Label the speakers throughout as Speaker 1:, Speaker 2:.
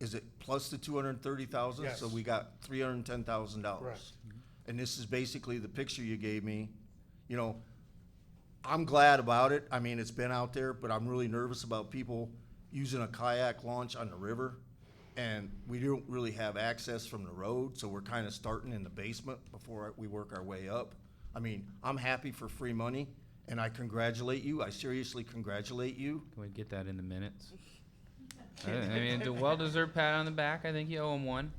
Speaker 1: is it plus the two hundred and thirty thousand?
Speaker 2: Yes.
Speaker 1: So we got three hundred and ten thousand
Speaker 2: Correct.
Speaker 1: dollars. And this is basically the picture you gave me, you know, I'm glad about it, I mean, it's been out there, but I'm really nervous about people using a kayak launch on the river. And we don't really have access from the road, so we're kinda starting in the basement before we work our way up. I mean, I'm happy for free money, and I congratulate you, I seriously congratulate you.
Speaker 3: Can we get that in the minutes? I I mean, the well-deserved pat on the back. I think you owe him one.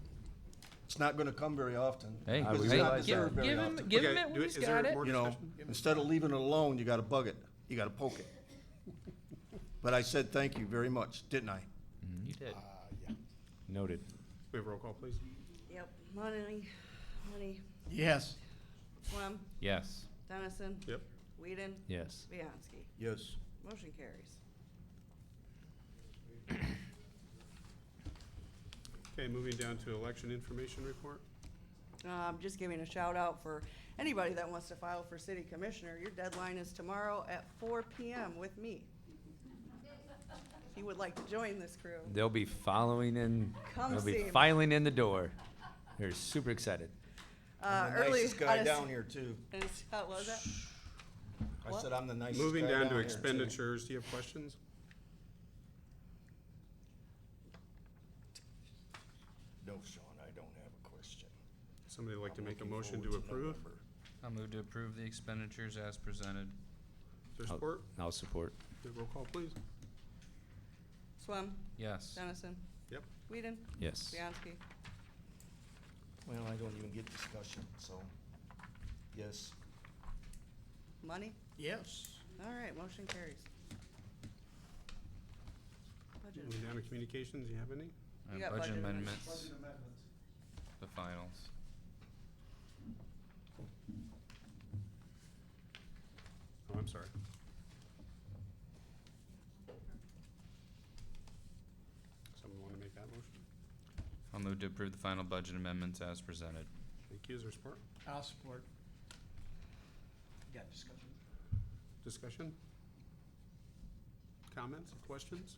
Speaker 1: It's not gonna come very often.
Speaker 3: Hey,
Speaker 1: because it's
Speaker 3: hey,
Speaker 1: not
Speaker 3: give-
Speaker 1: deserved very
Speaker 3: give him-
Speaker 1: often.
Speaker 3: give
Speaker 4: Okay,
Speaker 3: him it when
Speaker 4: do it-
Speaker 3: he's
Speaker 4: is there
Speaker 3: got it.
Speaker 4: more
Speaker 1: You know,
Speaker 4: discussion?
Speaker 1: instead of leaving it alone, you gotta bug it, you gotta poke it. But I said thank you very much, didn't I?
Speaker 3: You did.
Speaker 5: Mm-hmm.
Speaker 6: Uh,
Speaker 5: Noted.
Speaker 4: We have roll call, please.
Speaker 6: Yep, Money, Money,
Speaker 2: Yes.
Speaker 6: Swam,
Speaker 3: Yes.
Speaker 6: Dennison,
Speaker 4: Yep.
Speaker 6: Whedon,
Speaker 5: Yes.
Speaker 6: Bianski.
Speaker 1: Yes.
Speaker 6: Motion carries.
Speaker 4: Okay, moving down to election information report.
Speaker 6: Um, just giving a shout out for anybody that wants to file for city commissioner. Your deadline is tomorrow at four PM with me. If you would like to join this crew.
Speaker 5: They'll be following in,
Speaker 6: Come
Speaker 5: they'll
Speaker 6: see
Speaker 5: be
Speaker 6: me.
Speaker 5: filing in the door. They're super excited.
Speaker 6: Uh,
Speaker 1: I'm the
Speaker 6: early.
Speaker 1: nicest guy down here too.
Speaker 6: How was that?
Speaker 1: I said I'm the nicest
Speaker 4: Moving
Speaker 1: guy
Speaker 4: down to
Speaker 1: here, too.
Speaker 4: expenditures, do you have questions?
Speaker 1: No, Sean, I don't have a question.
Speaker 4: Somebody like to
Speaker 1: I'm
Speaker 4: make a
Speaker 1: looking
Speaker 4: motion
Speaker 1: forward
Speaker 4: to approve?
Speaker 1: November.
Speaker 3: I'll move to approve the expenditures as presented.
Speaker 4: Is there
Speaker 5: I'll-
Speaker 4: support?
Speaker 5: I'll support.
Speaker 4: Do a Roll call, please.
Speaker 6: Swam,
Speaker 3: Yes.
Speaker 6: Dennison,
Speaker 4: Yep.
Speaker 6: Whedon,
Speaker 5: Yes.
Speaker 6: Bianski.
Speaker 1: Well, I don't even get discussion, so, yes.
Speaker 6: Money?
Speaker 2: Yes.
Speaker 6: All right, motion carries. Budget
Speaker 4: Moving down to communications, do you have any?
Speaker 3: Uh,
Speaker 6: You got budget
Speaker 3: budget
Speaker 6: amendments.
Speaker 3: amendments. The finals.
Speaker 4: Oh, I'm sorry. Someone want to make that motion?
Speaker 3: I'll move to approve the final budget amendments as presented.
Speaker 4: Thank you, is there support?
Speaker 2: I'll support. Got discussion?
Speaker 4: Discussion? Comments, questions?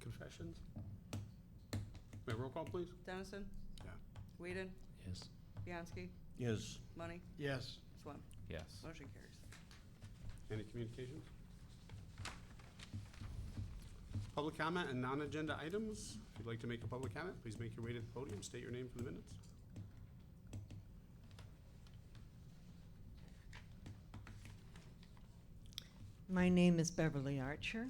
Speaker 4: Confessions? May I roll call, please?
Speaker 6: Dennison?
Speaker 4: Yeah.
Speaker 6: Whedon,
Speaker 5: Yes.
Speaker 6: Bianski,
Speaker 1: Yes.
Speaker 6: Money,
Speaker 2: Yes.
Speaker 6: Swam.
Speaker 3: Yes.
Speaker 6: Motion carries.
Speaker 4: Any communications? Public comment and non-agenda items. If you'd like to make a public comment, please make your way to the podium, state your name for the minutes.
Speaker 7: My name is Beverly Archer.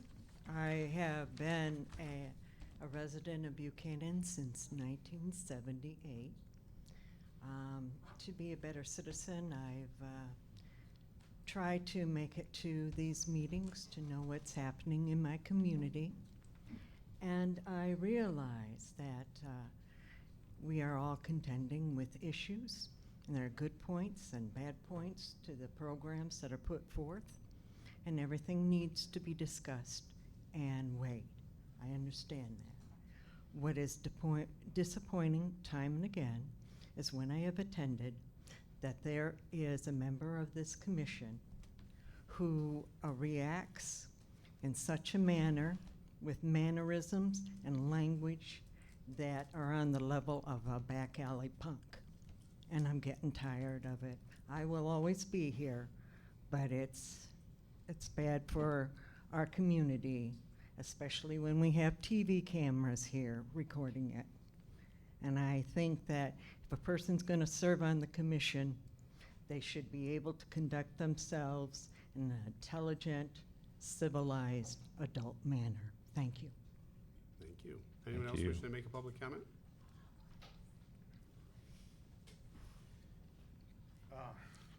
Speaker 7: I have been a, a resident of Buchanan since 1978. Um, to be a better citizen, I've uh, tried to make it to these meetings to know what's happening in my community. And I realize that uh, we are all contending with issues, and there are good points and bad points to the programs that are put forth and everything needs to be discussed and weighed. I understand that. What is depoint- disappointing time and again is when I have attended that there is a member of this commission who uh, reacts in such a manner with mannerisms and language that are on the level of a back alley punk. And I'm getting tired of it. I will always be here, but it's it's bad for our community, especially when we have TV cameras here recording it. And I think that if a person's going to serve on the commission, they should be able to conduct themselves in an intelligent, civilized, adult manner. Thank you.
Speaker 4: Thank you. Anyone
Speaker 5: Thank
Speaker 4: else
Speaker 5: you.
Speaker 4: wishing to make a public comment?
Speaker 2: Uh,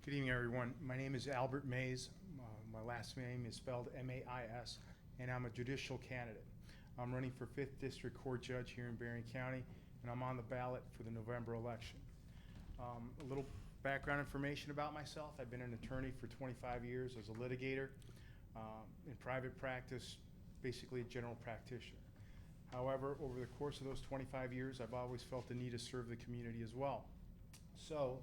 Speaker 2: Good evening, everyone. My name is Albert Mays. Uh, My last name is spelled M-A-I-S, and I'm a judicial candidate. I'm running for Fifth District Court Judge here in Berrien County, and I'm on the ballot for the November election. Um, A little background information about myself. I've been an attorney for 25 years as a litigator, um, in private practice, basically a general practitioner. However, over the course of those 25 years, I've always felt the need to serve the community as well. So,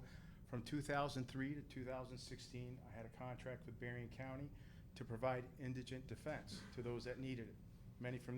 Speaker 2: from 2003 to 2016, I had a contract with Berrien County to provide indigent defense to those that needed it, many from